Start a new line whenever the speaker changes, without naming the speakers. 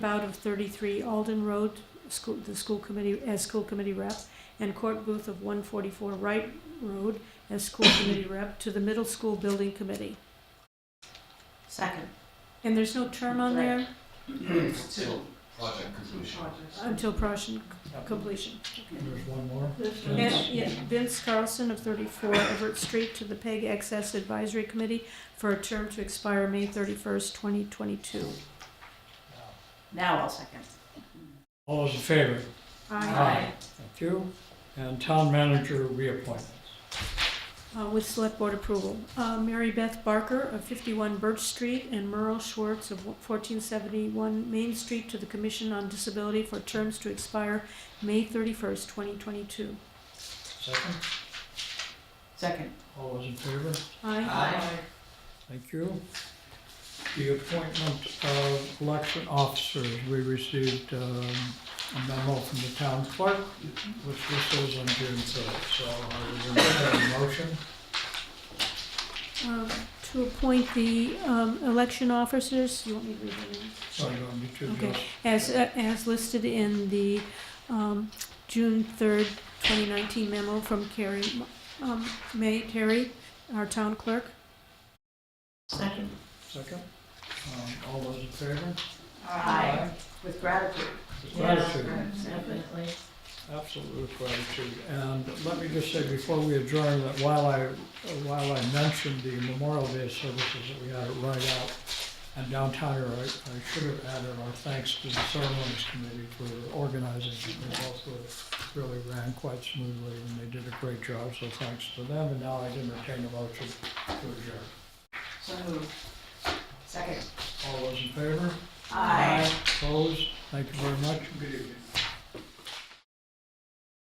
out of 33 Alden Road, school, the school committee, as school committee rep, and Court Booth of 144 Wright Road as school committee rep to the middle school building committee.
Second.
And there's no term on there
Two.
Project completion.
until Prussian completion.
There's one more.
And, yeah, Vince Carlson of 34 Everett Street to the PEG Access Advisory Committee for a term to expire May 31st, 2022.
Now I'll second.
All those in favor?
I,
Aye.
Thank you. And town manager reappointments.
uh, with select board approval. Uh, Mary Beth Barker of 51 Birch Street and Merle Schwartz of 1471 Main Street to the Commission on Disability for terms to expire May 31st, 2022.
Second,
Second.
all those in favor?
Aye.
Aye.
Thank you. The appointment of election officers, we received um, a memo from the town clerk, which this is on June third, so I would entertain a motion.
Um, To appoint the um, election officers, you want me to read the names?
Sorry, do me to
Okay.
just,
As, uh, as listed in the um, June 3rd, 2019 memo from Carrie, um, May Terry, our town clerk.
Second.
second, Um, all those in favor?
Aye. With gratitude.
With Gratitude.
Definitely.
Absolute gratitude. And let me just say before we adjourn that while I, while I mentioned the Memorial Day services that we had at Rite Out and downtown here, I, I should have added our thanks to the ceremonies committee for organizing. it. They both were, really ran quite smoothly and they did a great job, so thanks to them. And now I entertain a motion to adjourn.
So moved. Second.
All those in favor?
Aye.
Opposed? Thank you very much. Good evening.